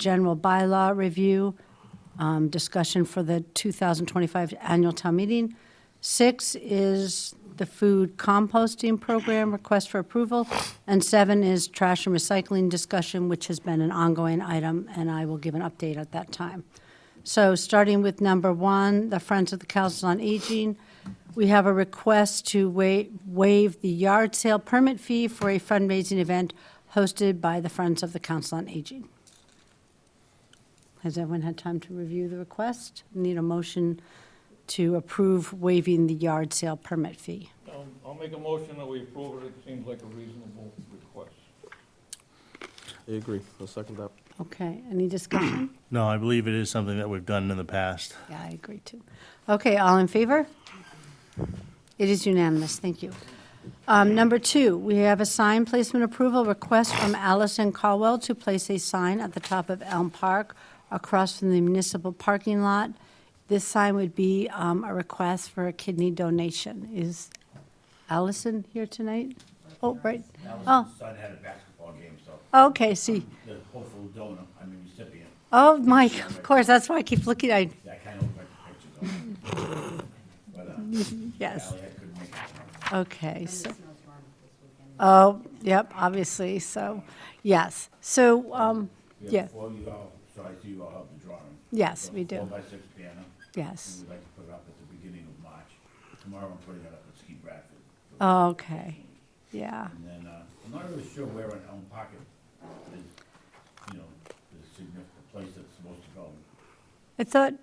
general bylaw review, um, discussion for the 2025 annual town meeting. Six is the food composting program request for approval. And seven is trash and recycling discussion, which has been an ongoing item, and I will give an update at that time. So starting with number one, the Friends of the Council on Aging, we have a request to wa- waive the yard sale permit fee for a fundraising event hosted by the Friends of the Council on Aging. Has everyone had time to review the request? Need a motion to approve waiving the yard sale permit fee. Um, I'll make a motion that we approve it, it seems like a reasonable request. I agree. I'll second that. Okay, any discussion? No, I believe it is something that we've done in the past. Yeah, I agree too. Okay, all in favor? It is unanimous, thank you. Um, Number two, we have a sign placement approval request from Allison Caldwell to place a sign at the top of Elm Park across from the municipal parking lot. This sign would be um, a request for a kidney donation. Is Allison here tonight? Oh, right, oh, Allison's son had a basketball game, so okay, see, the hopeful donor, I mean recipient, oh, Mike, of course, that's why I keep looking, I, yeah, I kind of looked at the pictures of him. But, uh, yes. Ally, I couldn't make it. Okay, so. Oh, yep, obviously, so, yes. So, um, We yeah, have four, you all, so I see you all have the drawing. Yes, So we do. Four by six banner, and yes. we'd like to put it up at the beginning of March. Tomorrow I'm putting it up at Ski Bradford. Okay, yeah, And then, uh, I'm not really sure where in Elm Pocket is, you know, the significant place that's supposed to go. I thought,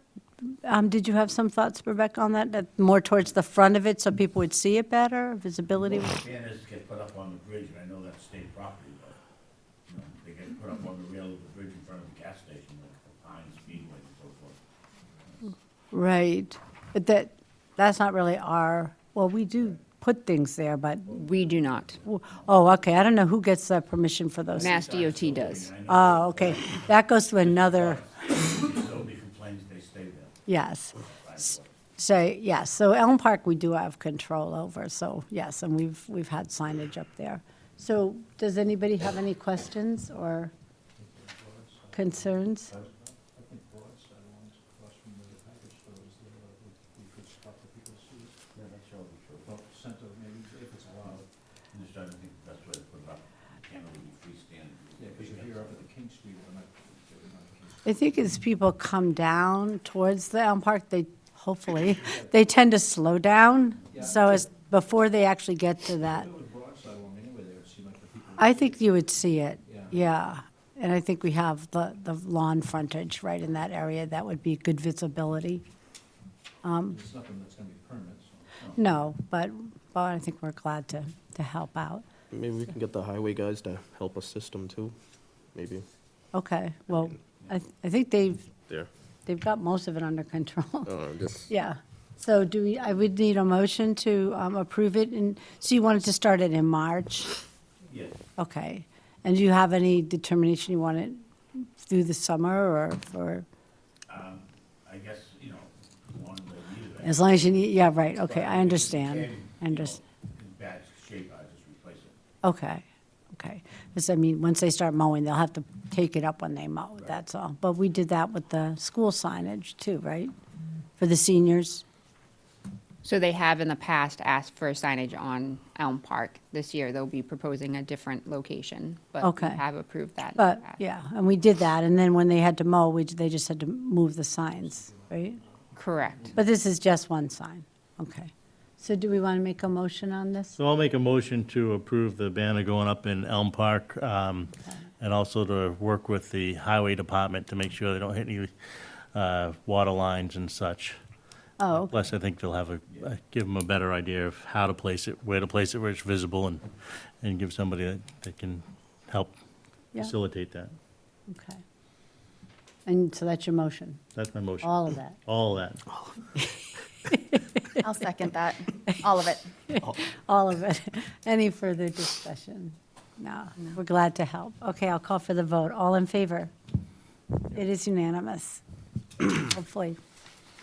um, did you have some thoughts, Rebecca, on that? That more towards the front of it so people would see it better, visibility? Most Banners get put up on the bridge, and I know that's state property, but, you know, they get put up on the rail of the bridge in front of the gas station, like the Pine Speedway and so forth. Right, but that, that's not really our, well, we do put things there, but, We do not. oh, okay, I don't know who gets that permission for those. Mass DOT does. I mean, I Oh, okay, that goes to another. know nobody complains they stay there. Yes. S- So, yes, so Elm Park, we do have control over, so, yes, and we've, we've had signage up there. So, does anybody have any questions or concerns? I think broadside ones across from the package store is there, uh, we we could stop the people to see. Yeah, that's all we should. Well, center, maybe if it's allowed, I'm just trying to think the best way to put it up. You Can't really freestanding. yeah, because you're here up at the King Street, but not, but not King Street. I think as people come down towards the Elm Park, they, hopefully, they tend to slow down, so as, before they actually get to that. If it was broadside one anyway, there would seem like the people. I think you would see it, Yeah. yeah. And I think we have the, the lawn frontage right in that area, that would be good visibility. It's nothing that's gonna be permanent, so. No, but, but I think we're glad to, to help out. Maybe we can get the highway guys to help assist them too. Maybe. Okay, well, I, th- I think they've, There. they've got most of it under control. Oh, just. Yeah, so do we, I would need a motion to um, approve it, and, so you wanted to start it in March? Yes, Okay, and do you have any determination you want it through the summer, or, or, um, I guess, you know, one way either. as long as you need, yeah, right, okay, But if I it understand. became, I you under, know, In bad shape, I just replace it. okay, okay. Because, I mean, once they start mowing, they'll have to take it up when they mow, that's all. But we did that with the school signage too, right? For the seniors? So they have in the past asked for signage on Elm Park. This year, they'll be proposing a different location, but we Okay. have approved that. in the But, past. yeah, and we did that, and then when they had to mow, we, they just had to move the signs, right? Correct. But this is just one sign, okay. So do we want to make a motion on this? So I'll make a motion to approve the banner going up in Elm Park, um, and also to work with the highway department to make sure they don't hit any, uh, water lines and such. Oh, okay. Plus, I think they'll have a, uh, give them a better idea of how to place it, where to place it, where it's visible, and, and give somebody that, that can help Yeah. facilitate that. okay. And so that's your motion, That's my motion. all of that. All that. I'll second that, all of it. All of it. Any further discussion? No, we're glad to help. Okay, I'll call for the vote. All in favor? It is unanimous. Hopefully,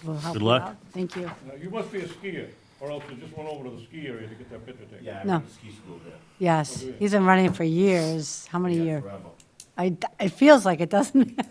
we'll help Good you luck. out. Thank you. Now, you must be a skier, or else you just went over to the ski area to get that picture taken. Yeah, I No. went to ski school there. Yes, he's been running for years. How many Yeah, years? Forever. I, it feels like it, doesn't it?